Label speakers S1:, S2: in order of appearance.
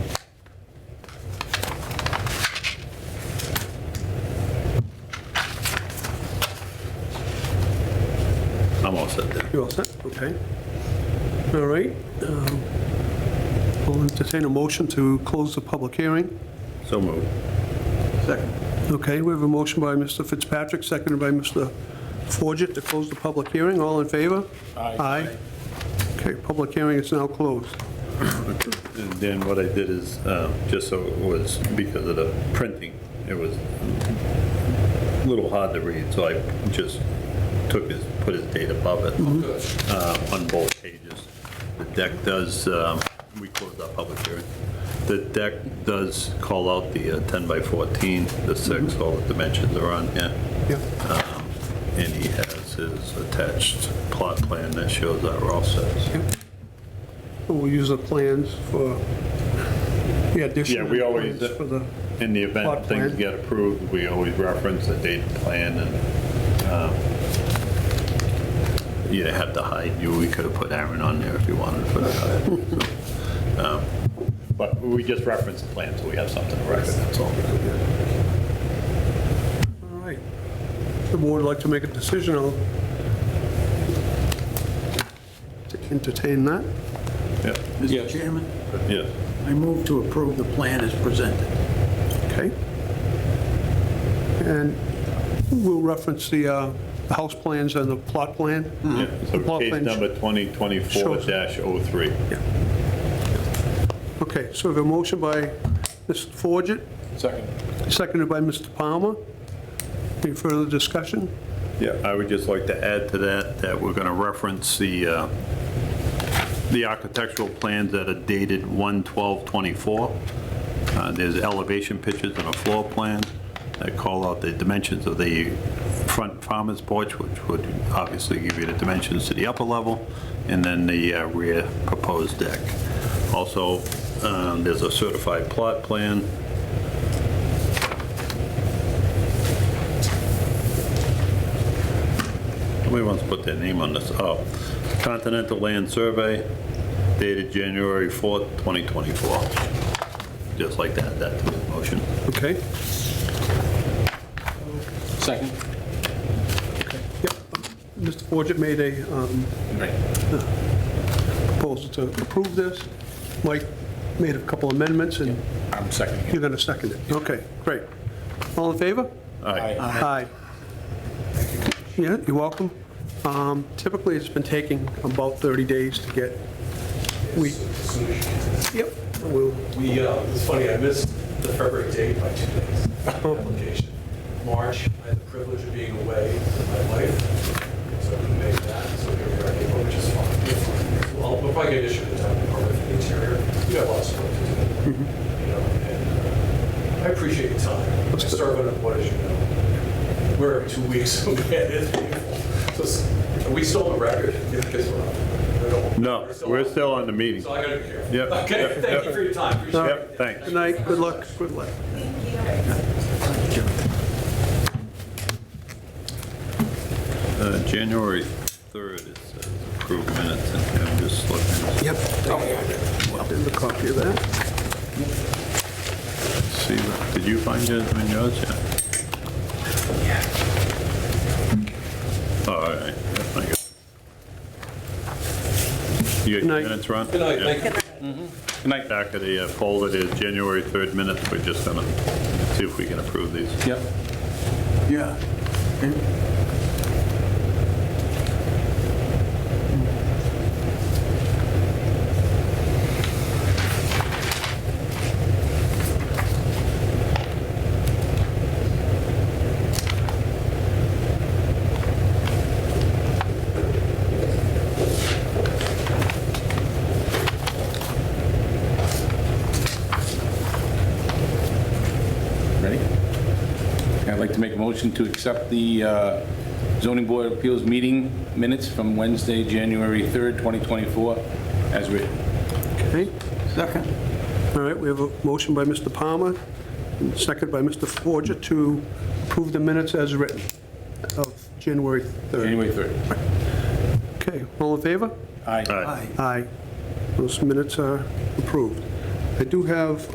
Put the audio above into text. S1: You're all set? Okay. All right. um, I'll entertain a motion to close the public hearing.
S2: So moved.
S3: Second.
S1: Okay, we have a motion by Mr. Fitzpatrick, seconded by Mr. Forget to close the public hearing. All in favor? Aye. Aye. Okay, public hearing is now closed.
S2: And Then what I did is, um, just so it was, because of the printing, it was a little hard to read, so I just took his, put his date above it
S1: Mm-hmm.
S2: uh, on both pages. The deck does, um, we closed our public hearing. The deck does call out the uh, 10 by 14, the six,
S1: Mm-hmm.
S2: all the dimensions are on here. Um,
S1: Yeah.
S2: And he has his attached plot plan that shows our offsets.
S1: We'll use the plans for the addition.
S2: Yeah, we always-
S1: For the,
S2: In the
S1: Plot
S2: event things
S1: plan.
S2: get approved, we always reference the date plan and um, you have to hide, you, we could have put Aaron on there if you wanted for that. So, um, But we just reference the plan, so we have something to reference, that's all.
S1: all right. The board would like to make a decision, I'll entertain that.
S2: Yeah,
S3: Mr. Chairman,
S2: yeah.
S3: I move to approve the plan as presented.
S1: Okay. And we'll reference the uh, the house plans and the plot plan.
S2: yeah.
S1: The
S2: Mm-hmm. So
S1: plot
S2: case
S1: plan-
S2: number 2024-03.
S1: Okay, so we have a motion by Mr. Forget,
S4: Second.
S1: seconded by Mr. Palmer. Any further discussion?
S2: Yeah, I would just like to add to that, that we're going to reference the, uh, the architectural plans that are dated 1/12/24. Uh, There's elevation pictures and a floor plan that call out the dimensions of the front farmer's porch, which would obviously give you the dimensions to the upper level, and then the uh, rear proposed deck. Also, um, there's a certified plot plan Somebody wants to put their name on this. Oh, Continental Land Survey dated January 4th, 2024. Just like that, that to the motion.
S1: Okay,
S4: Second.
S1: yep. Mr. Forget made a um, proposal to approve this. Mike made a couple amendments, and
S4: I'm seconding
S1: you're going to second it. Okay, great. All in favor?
S2: All right.
S4: Aye.
S1: Aye. Yeah, you're welcome. Um, Typically, it's been taking about 30 days to get, we, yep, we'll,
S5: We, uh, it's funny, I missed the February date by two days, application. March, I had the privilege of being away with my wife, so I couldn't make that, so here we are, in April, which is fine. Well, we'll probably get issued a town department for the interior, we got lots of work to do, you know, and uh, I appreciate your time. I serve on the board, as you know, we're every two weeks, so man, it's painful. So s- Are we still on the record? Yeah, I guess we're not. I don't-
S2: No, we're still on the meeting.
S5: So I gotta be careful.
S2: Yep.
S5: Okay, thank you for your time, appreciate it.
S2: Yep, thanks.
S1: good night, good luck, good luck.
S2: Uh, January 3rd, it says approved minutes, and I'm just looking
S1: Yep.
S4: Oh,
S1: Did the copy of that?
S2: to see, what- did you find yours in yours yet? Yeah. All right. I got- You got
S1: Good
S2: your
S1: night.
S2: minutes, Ron?
S5: Good night,
S2: Yeah.
S5: thank you.
S2: Good night. Back of the uh, poll that is January 3rd minutes, we're just gonna see if we can approve these.
S4: Yep.
S3: Yeah.
S4: Ready? I'd like to make a motion to accept the uh, zoning board of appeals meeting minutes from Wednesday, January 3rd, 2024, as written.
S1: Okay,
S3: Second.
S1: all right, we have a motion by Mr. Palmer, and second by Mr. Forget to approve the minutes as written of January 3rd.
S4: January 3rd.
S1: Okay, all in favor?
S4: Aye.
S2: All right.
S1: Aye. Those minutes are approved. I do have